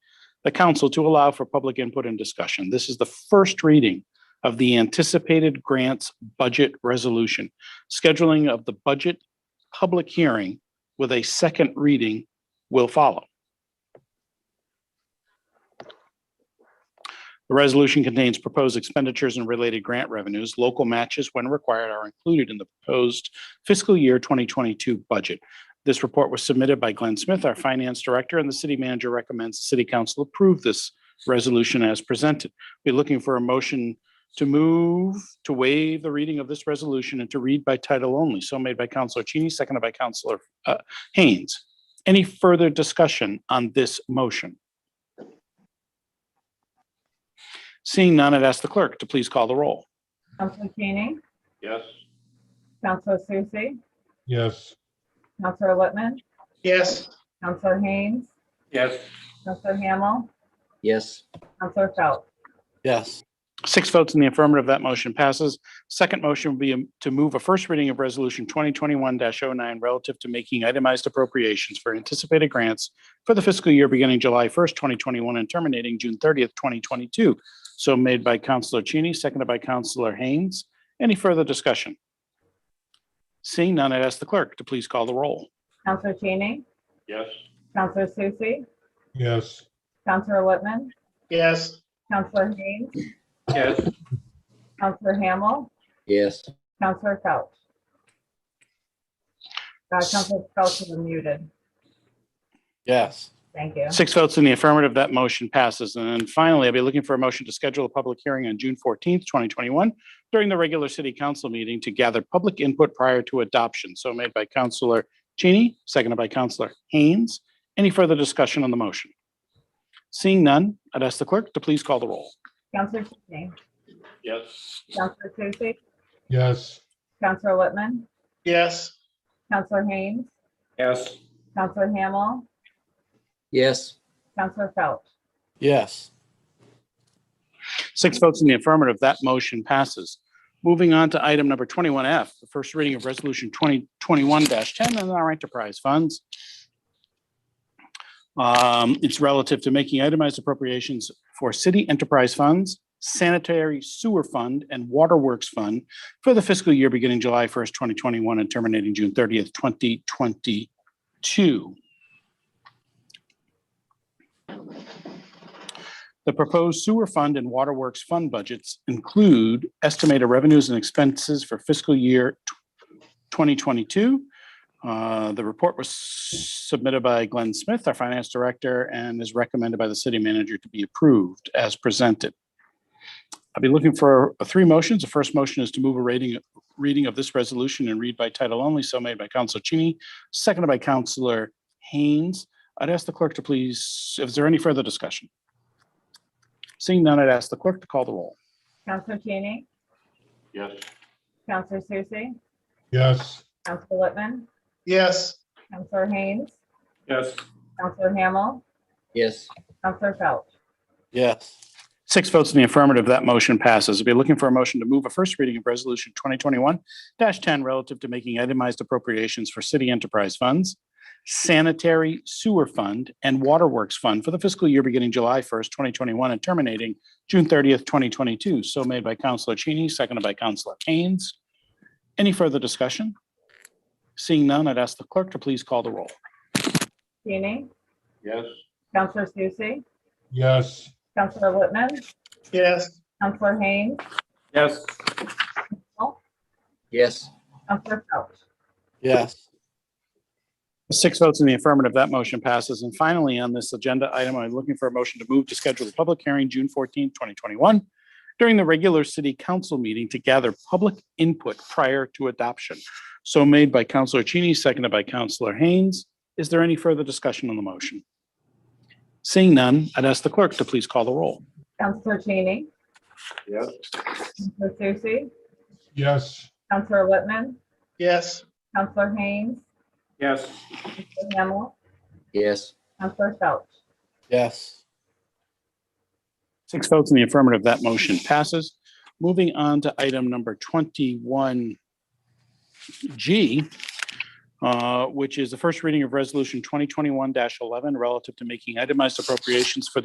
the council to allow for public input and discussion. This is the first reading of the anticipated grants budget resolution, scheduling of the budget public hearing with a second reading will follow. The resolution contains proposed expenditures and related grant revenues. Local matches, when required, are included in the proposed fiscal year 2022 budget. This report was submitted by Glenn Smith, our finance director, and the city manager recommends the city council approve this resolution as presented. We're looking for a motion to move, to waive the reading of this resolution and to read by title only. So made by Counselor Cheney, seconded by Counselor uh, Haynes. Any further discussion on this motion? Seeing none, I'd ask the clerk to please call the roll. Counselor Cheney, Yes. Counselor Susie, Yes. Counselor Littman, Yes. Counselor Haynes, Yes. Counselor Hamel, Yes. Counselor Phelps, Yes. Six votes in the affirmative, that motion passes. Second motion would be um, to move a first reading of Resolution 2021-09 relative to making itemized appropriations for anticipated grants for the fiscal year beginning July 1st, 2021 and terminating June 30th, 2022. So made by Counselor Cheney, seconded by Counselor Haynes. Any further discussion? Seeing none, I'd ask the clerk to please call the roll. Counselor Cheney, Yes. Counselor Susie, Yes. Counselor Littman, Yes. Counselor Haynes, Yes. Counselor Hamel, Yes. Counselor Phelps. Uh, Counselor Phelps is muted. Yes. Thank you. Six votes in the affirmative, that motion passes. And then finally, I'll be looking for a motion to schedule a public hearing on June fourteenth, twenty twenty-one during the regular city council meeting to gather public input prior to adoption. So made by Counselor Cheney, seconded by Counselor Haynes. Any further discussion on the motion? Seeing none, I'd ask the clerk to please call the roll. Counselor Cheney, Yes. Counselor Susie, Yes. Counselor Littman, Yes. Counselor Haynes, Yes. Counselor Hamel, Yes. Counselor Phelps. Yes. Six votes in the affirmative, that motion passes. Moving on to item number twenty-one F, the first reading of Resolution twenty twenty-one ten and our enterprise funds. Um, It's relative to making itemized appropriations for city enterprise funds, sanitary sewer fund, and waterworks fund for the fiscal year beginning July first, twenty twenty-one and terminating June thirtieth, twenty twenty-two. The proposed sewer fund and waterworks fund budgets include estimated revenues and expenses for fiscal year tw- 2022. Uh, The report was submitted by Glenn Smith, our finance director, and is recommended by the city manager to be approved as presented. I'll be looking for uh, three motions. The first motion is to move a rating, reading of this resolution and read by title only, so made by Councilor Cheney, seconded by Councilor Haynes. I'd ask the clerk to please, is there any further discussion? Seeing none, I'd ask the clerk to call the roll. Counselor Cheney, Yes. Counselor Susie, Yes. Counselor Littman, Yes. Counselor Haynes, Yes. Counselor Hamel, Yes. Counselor Phelps, Yes. Six votes in the affirmative, that motion passes. I'll be looking for a motion to move a first reading of Resolution 2021-10 relative to making itemized appropriations for city enterprise funds, sanitary sewer fund, and waterworks fund for the fiscal year beginning July 1st, 2021, and terminating June 30th, 2022. So made by Counselor Cheney, seconded by Counselor Haynes. Any further discussion? Seeing none, I'd ask the clerk to please call the roll. Cheney, Yes. Counselor Susie, Yes. Counselor Littman, Yes. Counselor Haynes, Yes. Yes. Counselor Phelps, Yes. Six votes in the affirmative, that motion passes. And finally, on this agenda item, I'm looking for a motion to move to schedule the public hearing June 14, 2021, during the regular city council meeting to gather public input prior to adoption. So made by Counselor Cheney, seconded by Counselor Haynes. Is there any further discussion on the motion? Seeing none, I'd ask the clerk to please call the roll. Counselor Cheney, Yes. Counselor Susie, Yes. Counselor Littman, Yes. Counselor Haynes, Yes. Counselor Hamel, Yes. Counselor Phelps, Yes. Six votes in the affirmative, that motion passes. Moving on to item number twenty-one G, uh, which is the first reading of Resolution twenty twenty-one eleven relative to making itemized appropriations for the